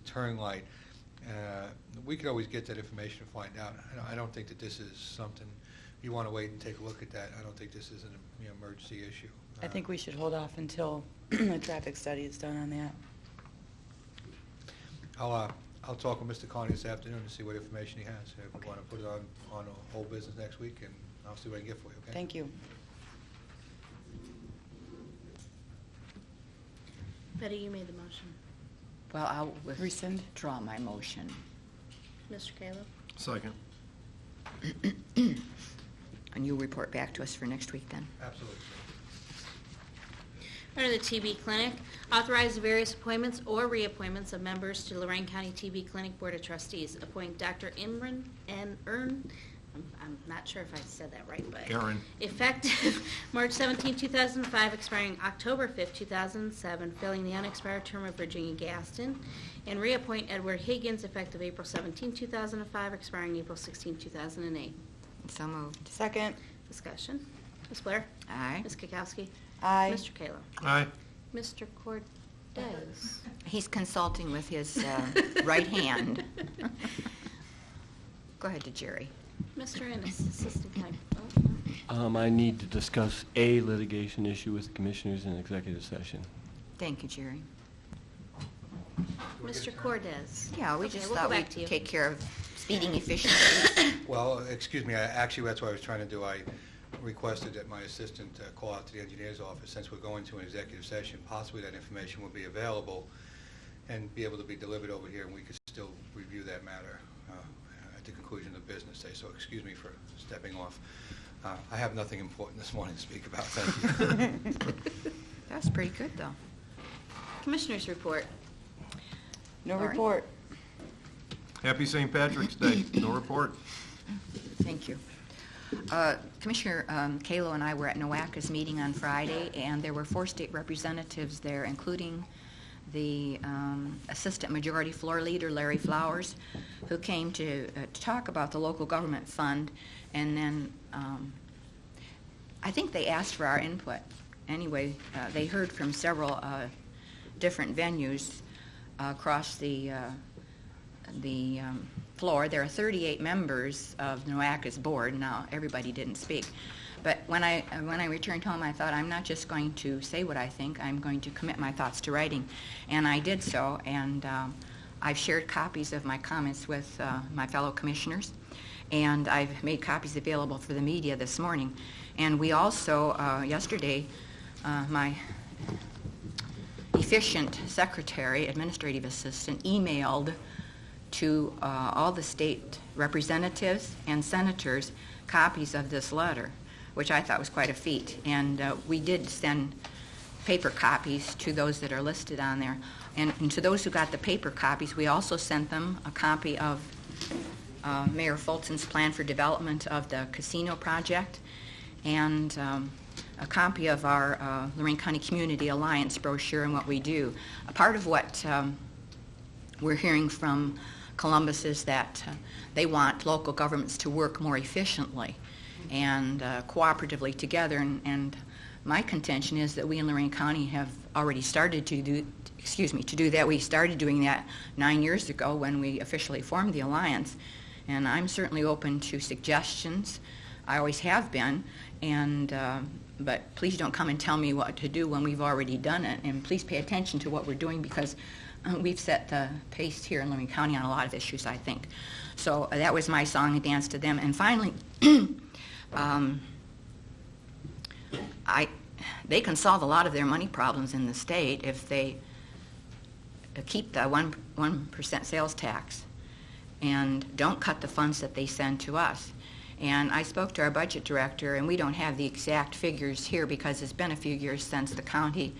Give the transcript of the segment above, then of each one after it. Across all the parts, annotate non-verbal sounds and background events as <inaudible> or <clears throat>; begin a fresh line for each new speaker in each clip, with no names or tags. turn light. Uh, We could always get that information and find out. I don't- I don't think that this is something, you want to wait and take a look at that. I don't think this is an you know, emergency issue. Uh,
I think we should hold off until <clears throat> the traffic study is done on that.
I'll, uh, I'll talk with Mr. Carney this afternoon and see what information he has. If we want to put it on, on a whole business next week, and I'll see what I can get for you, okay?
Thank you.
Betty, you made the motion.
Well, I'll
Rescind.
withdraw my motion.
Mr. Kayla?
Second.
And you'll report back to us for next week then?
Absolutely.
Under the TB Clinic, authorize various appointments or reappointments of members to Lorraine County TB Clinic Board of Trustees. Appoint Dr. Imran and Earn, I'm- I'm not sure if I said that right, but.
Erin.
Effective <laughs> March 17, 2005, expiring October 5, 2007, filling the unexpired term of Virginia Gaston. And reappoint Edward Higgins, effective April 17, 2005, expiring April 16, 2008.
So moved.
Second.
Discussion. Ms. Blair?
Aye.
Ms. Kukowski?
Aye.
Mr. Kayla?
Aye.
Mr. Cordez?
He's consulting with his uh,
<laughs>
right hand. Go ahead to Jerry.
Mr. Ennis, Assistant County. oh, no.
Um, I need to discuss a litigation issue with the commissioners in executive session.
Thank you, Jerry.
we get a
Mr.
turn?
Cordez?
Yeah, we
Okay,
just
we'll go
thought
back
we'd
to you.
take care of speeding efficiently.
Well, excuse me, I- actually, that's what I was trying to do. I requested that my assistant uh, call out to the engineer's office, since we're going to an executive session, possibly that information will be available and be able to be delivered over here, and we could still review that matter uh, at the conclusion of the business day, so excuse me for stepping off. Uh, I have nothing important this morning to speak about, thank
<laughs>
you.
That was pretty good, though.
Commissioners report.
No
All right.
report.
Happy St. Patrick's Day. No report.
Thank you. Uh, Commissioner um, Kalo and I were at NOACA's meeting on Friday, and there were four state representatives there, including the um, Assistant Majority Floor Leader, Larry Flowers, who came to uh, to talk about the local government fund, and then um, I think they asked for our input. Anyway, uh, they heard from several uh, different venues uh, across the uh, the um, floor. There are 38 members of NOACA's board. Now, everybody didn't speak. But when I, when I returned home, I thought, I'm not just going to say what I think, I'm going to commit my thoughts to writing. And I did so, and um, I've shared copies of my comments with uh, my fellow commissioners, and I've made copies available for the media this morning. And we also, uh, yesterday, uh, my efficient secretary, administrative assistant, emailed to uh, all the state representatives and senators copies of this letter, which I thought was quite a feat. And uh, we did send paper copies to those that are listed on there. And, and to those who got the paper copies, we also sent them a copy of uh, Mayor Fulton's plan for development of the casino project and um, a copy of our uh, Lorraine County Community Alliance brochure and what we do. A part of what um, we're hearing from Columbus is that uh, they want local governments to work more efficiently and uh, cooperatively together. And, and my contention is that we in Lorraine County have already started to do, excuse me, to do that. We started doing that nine years ago when we officially formed the alliance. And I'm certainly open to suggestions. I always have been. And uh, but please don't come and tell me what to do when we've already done it. And please pay attention to what we're doing because uh, we've set the pace here in Lorraine County on a lot of issues, I think. So uh, that was my song and dance to them. And finally, <clears throat> um, I, they can solve a lot of their money problems in the state if they uh, keep the one one percent sales tax and don't cut the funds that they send to us. And I spoke to our budget director, and we don't have the exact figures here because it's been a few years since the county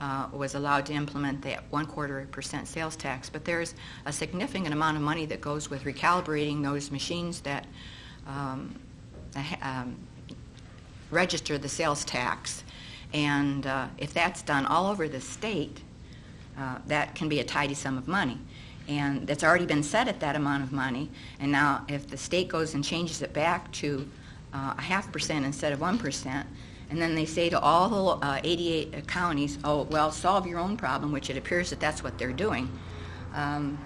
uh, was allowed to implement that one quarter percent sales tax. But there's a significant amount of money that goes with recalibrating those machines that um, uh, ha- um, register the sales tax. And uh, if that's done all over the state, uh, that can be a tidy sum of money. And that's already been set at that amount of money. And now, if the state goes and changes it back to uh, a half percent instead of one percent, and then they say to all the uh, 88 counties, "Oh, well, solve your own problem," which it appears that that's what they're doing. Um,